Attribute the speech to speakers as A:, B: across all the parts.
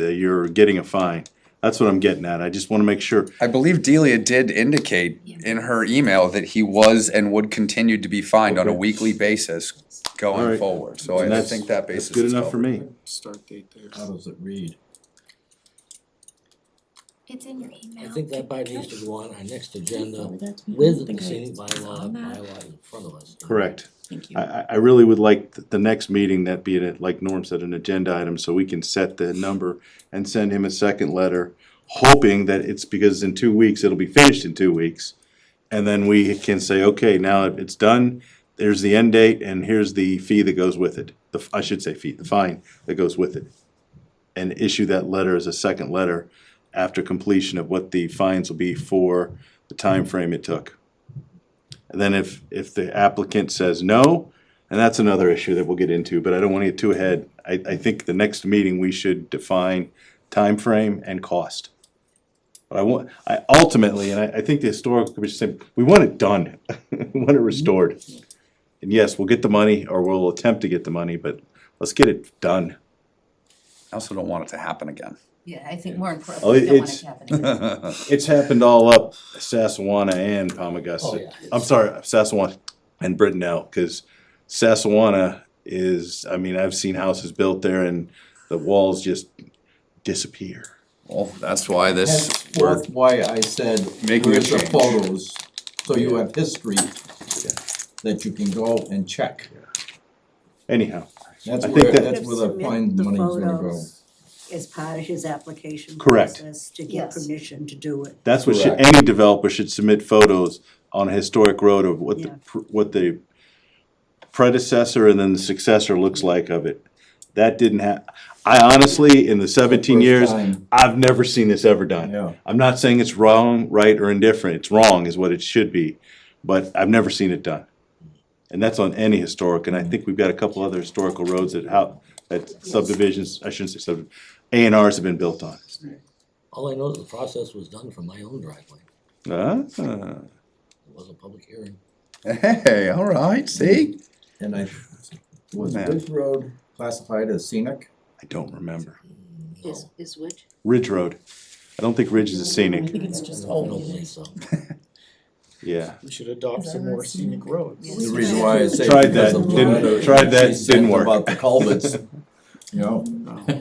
A: uh, you're getting a fine. That's what I'm getting at. I just wanna make sure.
B: I believe Delia did indicate in her email that he was and would continue to be fined on a
A: Okay.
B: weekly basis going
A: Alright.
B: forward, so I- I
A: That's-
B: think that basis
A: That's
B: is
A: good enough for
B: covered.
A: me.
C: Start date there.
D: How does it read?
E: It's in your email.
D: I think that probably needs to go on our next agenda
F: Forward that to me? I
D: uh, with
F: don't
D: the
F: think I
D: scenic bylaw,
F: on that.
D: bylaw in front of us.
A: Correct.
F: Thank you.
A: I, I, I really would like th- the next meeting, that be it, like Norm said, an agenda item, so we can set the number and send him a second letter, hoping that it's because in two weeks, it'll be finished in two weeks. And then we can say, okay, now it's done, there's the end date, and here's the fee that goes with it. The, f- I should say fee, the fine that goes with it. And issue that letter as a second letter after completion of what the fines will be for the time frame it took. And then if, if the applicant says no, and that's another issue that we'll get into, but I don't wanna get too ahead. I, I think the next meeting, we should define time frame and cost. But I want, I ultimately, and I, I think the historical commission said, we want it done, we want it restored. And yes, we'll get the money, or we'll attempt to get the money, but let's get it done.
B: I also don't want it to happen again.
G: Yeah, I think more
A: Oh,
G: importantly, we don't want
A: it's-
G: it happening.
A: It's happened all up Sassawana and Palmagussit.
D: Oh, yeah.
A: I'm sorry, Sassawana and Brittenell, because Sassawana is, I mean, I've seen houses built there and the walls just disappear.
B: Well, that's why this,
D: Has-
B: we're,
D: Work. why I said,
B: Making a
D: where's the
B: change.
D: photos, so you have history that you can go and check.
A: Anyhow,
D: That's
A: I think
D: where,
A: that-
D: that's where the fine money's gonna go.
H: As part of his application
A: Correct.
H: process to get
G: Yes.
H: permission to do it.
A: that's what should,
B: Correct.
A: any developer should submit photos on a historic road of what the,
H: Yeah.
A: pr- what the predecessor and then the successor looks like of it. That didn't hap, I honestly, in the seventeen
D: First
A: years,
D: time.
A: I've never seen this ever done.
D: Yeah.
A: I'm not saying it's wrong, right, or indifferent. It's wrong is what it should be, but I've never seen it done. And that's on any historic, and I think we've got a couple other historical roads that how, that subdivisions, I shouldn't say sub, A and Rs have been built on.
D: All I know is the process was done for my own driveway.
A: Ah,
D: It was a public hearing.
B: hey, all right, see?
D: And I.
B: Was
D: Was
B: Ridge
D: Ridge Road classified as scenic?
A: I don't remember.
G: Is, is which?
A: Ridge Road. I don't think Ridge is a
F: I
A: scenic,
F: think it's just
D: I don't
F: old.
D: believe so.
A: yeah.
C: We should adopt
F: Is
C: some
F: that
C: more
F: a
C: scenic
F: scenic-
C: roads.
G: Yes.
D: The reason why I say.
A: Tried
D: because
A: that,
D: of the
A: didn't-
D: letter
A: tried that,
D: she sent
A: didn't work.
D: About the culverts, you know?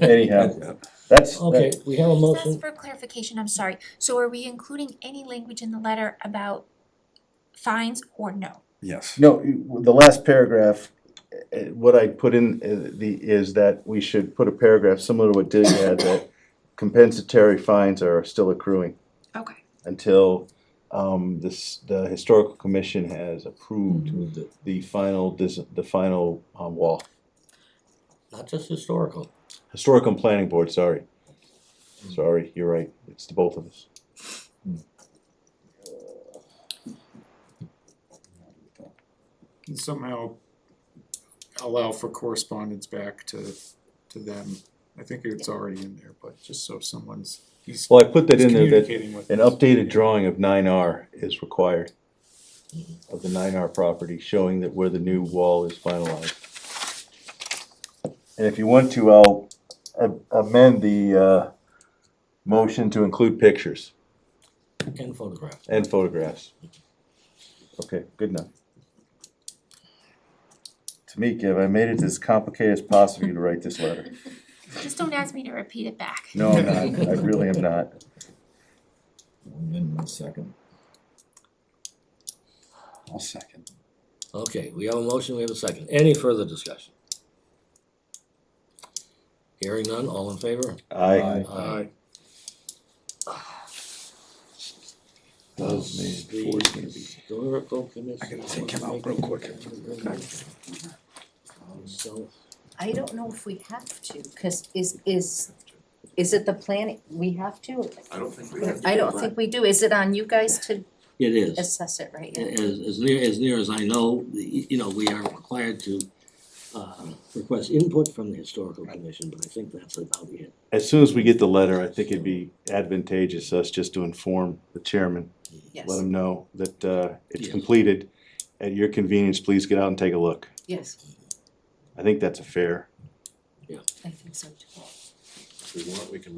A: Anyhow, that's,
D: Okay, we have a
E: Just for clarification, I'm sorry, so are we including any language in the letter about fines or no?
B: Yes.
A: No, the last paragraph, uh, what I put in uh, the, is that we should put a paragraph similar to what Dig had, that compensatory fines are still accruing
E: Okay.
A: until um, this, the historical commission has approved
D: Mm-hmm.
A: the final, dis- the final um, wall.
D: Not just historical.
A: Historical and planning board, sorry. Sorry, you're right, it's the both of us.
C: Can somehow allow for correspondence back to, to them. I think it's already in there, but just so someone's, he's
A: Well, I put that
C: he's
A: in there that
C: communicating with.
A: an
C: us.
A: updated drawing of nine R is required of the nine R property, showing that where the new wall is finalized. And if you want to, I'll a- amend the, uh, motion to include pictures
D: And photograph.
A: and photographs. Okay, good enough. Tamika, have I made it as complicated as possible for you to write this letter?
E: Just don't ask me to repeat it back.
A: No, I'm not, I really am not.
D: In one second.
B: I'll second.
D: Okay, we have a motion, we have a second. Any further discussion? Hearing none, all in favor?
A: I,
D: Aye.
A: those
D: Does
A: may force me to be.
D: the historical commission?
B: I gotta take him out real quick.
D: So,
G: I don't know if we have to, cause is, is, is it the planning, we have to?
I: I don't think we have to.
G: I don't think we do, is it on you guys to
D: It is.
G: assess it right now?
D: As, as near, as near as I know, the- you know, we are required to, uh, request input from the historical commission, but I think that's about it.
A: As soon as we get the letter, I think it'd be advantageous us just to inform the chairman, let
G: Yes,
A: him know that, uh, it's
D: Yes.
A: completed. At your convenience, please get out and take a look.
G: yes,
A: I think that's a fair,
G: I think so too.
F: we want, we can